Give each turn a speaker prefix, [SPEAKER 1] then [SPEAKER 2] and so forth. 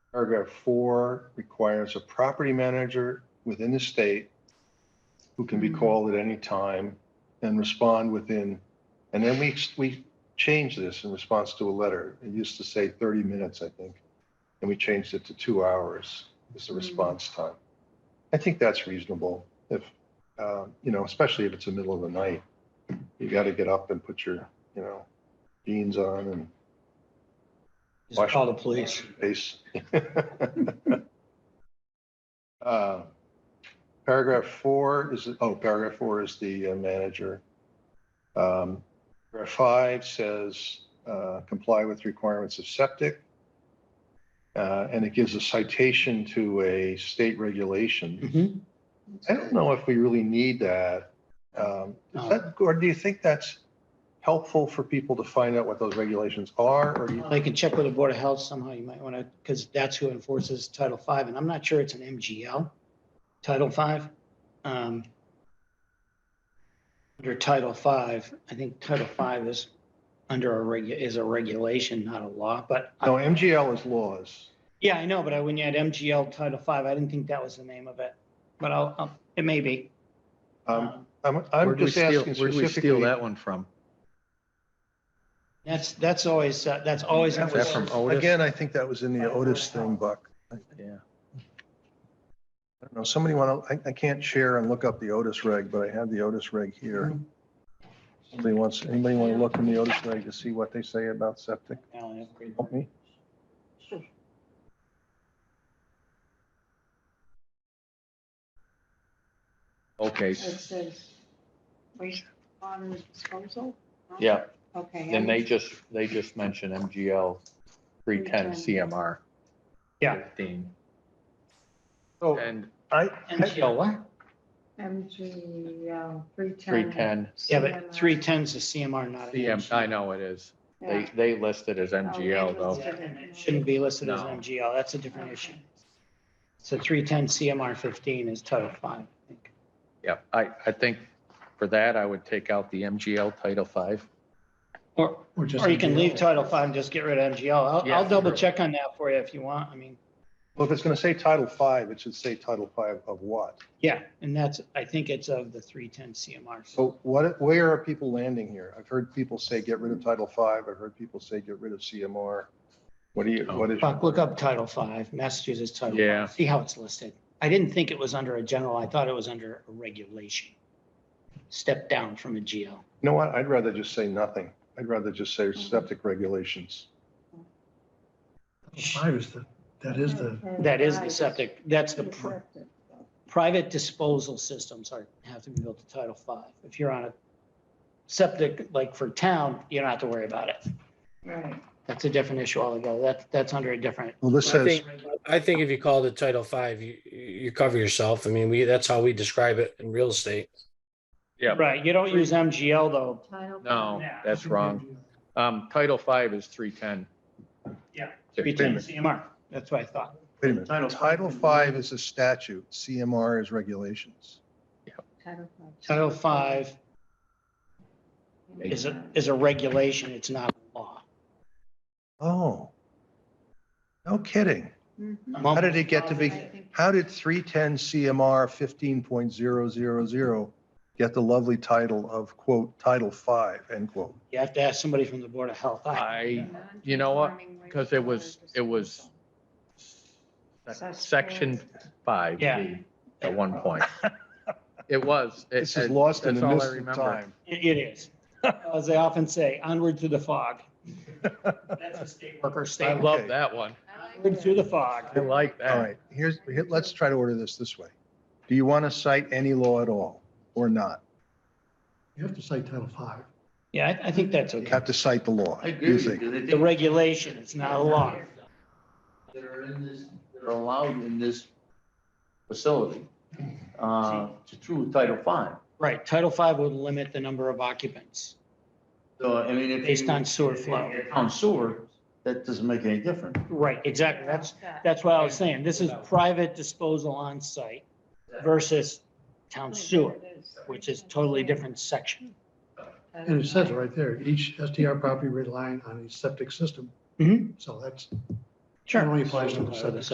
[SPEAKER 1] Paragraph four requires a property manager within the state who can be
[SPEAKER 2] Mhm.
[SPEAKER 1] called at any time and respond within, and then we, we changed this in response to a letter. It used to say 30 minutes, I think, and we changed it to two hours is the
[SPEAKER 2] Mhm.
[SPEAKER 1] response time. I think that's reasonable if, uh, you know, especially if it's the middle of the night. You got to get up and put your, you know, jeans on and
[SPEAKER 3] Just call the police.
[SPEAKER 1] Base. Uh, Paragraph four is, oh, paragraph four is the uh, manager. Um, Paragraph five says, uh, comply with requirements of septic. Uh, And it gives a citation to a state regulation.
[SPEAKER 3] Mhm.
[SPEAKER 1] I don't know if we really need that. Um, Is
[SPEAKER 3] No.
[SPEAKER 1] that, or do you think that's helpful for people to find out what those regulations are? Or do you
[SPEAKER 3] They can check with the Board of Health somehow. You might want to, because that's who enforces Title V, and I'm not sure it's an MGL, Title V. Um, Under Title V, I think Title V is under a regu, is a regulation, not a law, but, I-
[SPEAKER 1] No, MGL is laws.
[SPEAKER 3] yeah, I know, but I, when you had MGL Title V, I didn't think that was the name of it, but I'll, I'll- it may be.
[SPEAKER 1] Um,
[SPEAKER 3] Um,
[SPEAKER 1] I'm, I'm
[SPEAKER 4] Where'd we
[SPEAKER 1] just
[SPEAKER 4] steal-
[SPEAKER 1] asking
[SPEAKER 4] Where'd we steal
[SPEAKER 1] specifically.
[SPEAKER 4] that one from?
[SPEAKER 3] That's, that's always, uh, that's always.
[SPEAKER 1] That
[SPEAKER 4] Is that from Otis?
[SPEAKER 1] Again, I think that was in the Otis thing, Buck. I
[SPEAKER 4] Yeah.
[SPEAKER 1] don't know, somebody want to, I, I can't share and look up the Otis reg, but I have the Otis reg here. Somebody wants, anybody want to look in the Otis reg to see what they say about septic?
[SPEAKER 3] Alan, upgrade.
[SPEAKER 1] Help me.
[SPEAKER 4] Okay,
[SPEAKER 2] It says wastewater disposal? huh?
[SPEAKER 5] Yeah,
[SPEAKER 2] Okay.
[SPEAKER 5] and they
[SPEAKER 2] energy-
[SPEAKER 5] just, they just mentioned MGL three ten CMR.
[SPEAKER 3] Yeah.
[SPEAKER 5] Fifteen.
[SPEAKER 1] So
[SPEAKER 5] And
[SPEAKER 1] I,
[SPEAKER 3] MGL what?
[SPEAKER 2] MG, uh, three ten.
[SPEAKER 5] three ten
[SPEAKER 3] Yeah, but three ten's a CMR, not an
[SPEAKER 5] CM, I know it is. They, they listed as MGL though.
[SPEAKER 3] It Shouldn't be listed as
[SPEAKER 5] No.
[SPEAKER 3] MGL. That's a different issue. So three ten CMR fifteen is Title five. I think.
[SPEAKER 5] Yeah, I, I think for that, I would take out the MGL Title Five.
[SPEAKER 3] Or, or you can leave Title five and just get rid of MGL. I'll,
[SPEAKER 5] Yeah,
[SPEAKER 3] I'll double
[SPEAKER 5] true.
[SPEAKER 3] check on that for you if you want. I mean,
[SPEAKER 1] well, if it's going to say Title Five, it should say Title Five of what?
[SPEAKER 3] yeah, and that's, I think it's of the three ten
[SPEAKER 5] Oh.
[SPEAKER 3] CMR.
[SPEAKER 1] So what, where are people landing here? I've heard people say get rid of Title Five. I've heard people say get rid of CMR. What do you, what is?
[SPEAKER 3] Buck, look up Title five, Massachusetts Title
[SPEAKER 5] Yeah.
[SPEAKER 3] five, see how it's listed. I didn't think it was under a general. I thought it was under a regulation. Step down from a GL.
[SPEAKER 1] You know what? I'd rather just say nothing. I'd rather just say septic regulations.
[SPEAKER 6] Five is the, that is the,
[SPEAKER 3] That is the septic. That's the. pr- private disposal systems are, have to be built to Title Five. If you're on a septic, like for town, you don't have to worry about it.
[SPEAKER 2] Right.
[SPEAKER 3] That's a different issue altogether. That, that's under a different.
[SPEAKER 1] Well, this
[SPEAKER 7] I
[SPEAKER 1] says,
[SPEAKER 7] think, I think if you call it Title Five, you, you cover yourself. I mean, we, that's how we describe it in real estate.
[SPEAKER 5] Yeah.
[SPEAKER 3] Right, you don't use MGL though.
[SPEAKER 2] Title.
[SPEAKER 5] No, that's wrong. Um, Title Five is three ten.
[SPEAKER 3] Yeah.
[SPEAKER 1] Wait a minute.
[SPEAKER 3] CMR, that's what I thought.
[SPEAKER 1] wait a minute,
[SPEAKER 3] Title five.
[SPEAKER 1] Title Five is a statute, CMR is regulations.
[SPEAKER 2] Title
[SPEAKER 3] Title Five is a, is a regulation. It's not a law.
[SPEAKER 1] Oh. No kidding.
[SPEAKER 2] Mhm.
[SPEAKER 1] How did it get to
[SPEAKER 2] I
[SPEAKER 1] be,
[SPEAKER 2] think-
[SPEAKER 1] how did three ten CMR fifteen point zero zero zero get the lovely title of quote, Title Five, end quote?
[SPEAKER 3] You have to ask somebody from the Board of Health. I,
[SPEAKER 5] I, you know what? 'Cause it was- it was- Section Five.
[SPEAKER 3] Yeah.
[SPEAKER 5] B At one point. It was. It-
[SPEAKER 1] This is
[SPEAKER 5] it-
[SPEAKER 1] lost in
[SPEAKER 5] that's
[SPEAKER 1] the
[SPEAKER 5] all I
[SPEAKER 1] mist of
[SPEAKER 5] remember.
[SPEAKER 1] time.
[SPEAKER 3] it it is. As they often say, onward through the fog. That's a state worker
[SPEAKER 5] I
[SPEAKER 3] statement.
[SPEAKER 5] love that one.
[SPEAKER 3] Onward through the fog.
[SPEAKER 5] I like
[SPEAKER 1] All
[SPEAKER 5] that.
[SPEAKER 1] right, here's, here- let's try to order this this way. Do you want to cite any law at all or not?
[SPEAKER 6] you have to say Title Five.
[SPEAKER 3] Yeah, I, I think that's
[SPEAKER 1] You
[SPEAKER 3] okay.
[SPEAKER 1] have to cite the law.
[SPEAKER 8] I
[SPEAKER 1] you
[SPEAKER 8] agree with you.
[SPEAKER 1] think?
[SPEAKER 8] because I
[SPEAKER 3] The
[SPEAKER 8] think
[SPEAKER 3] regulation, it's not a law.
[SPEAKER 8] That are in this, that are allowed in this facility, uh, to true Title Five.
[SPEAKER 3] Right, Title V would limit the number of occupants.
[SPEAKER 8] So, I mean, if. you-
[SPEAKER 3] Based on sewer
[SPEAKER 8] if you
[SPEAKER 3] flow.
[SPEAKER 8] get On sewer, that doesn't make any difference.
[SPEAKER 3] Right, exactly. That's, that's what I was saying. This is private disposal on site versus town sewer, which is totally different section.
[SPEAKER 6] And it says it right there, each STR property relying on a septic system.
[SPEAKER 3] Mhm.
[SPEAKER 6] So that's,
[SPEAKER 3] Sure.
[SPEAKER 6] only applies to the
[SPEAKER 3] So, uh,
[SPEAKER 6] septic.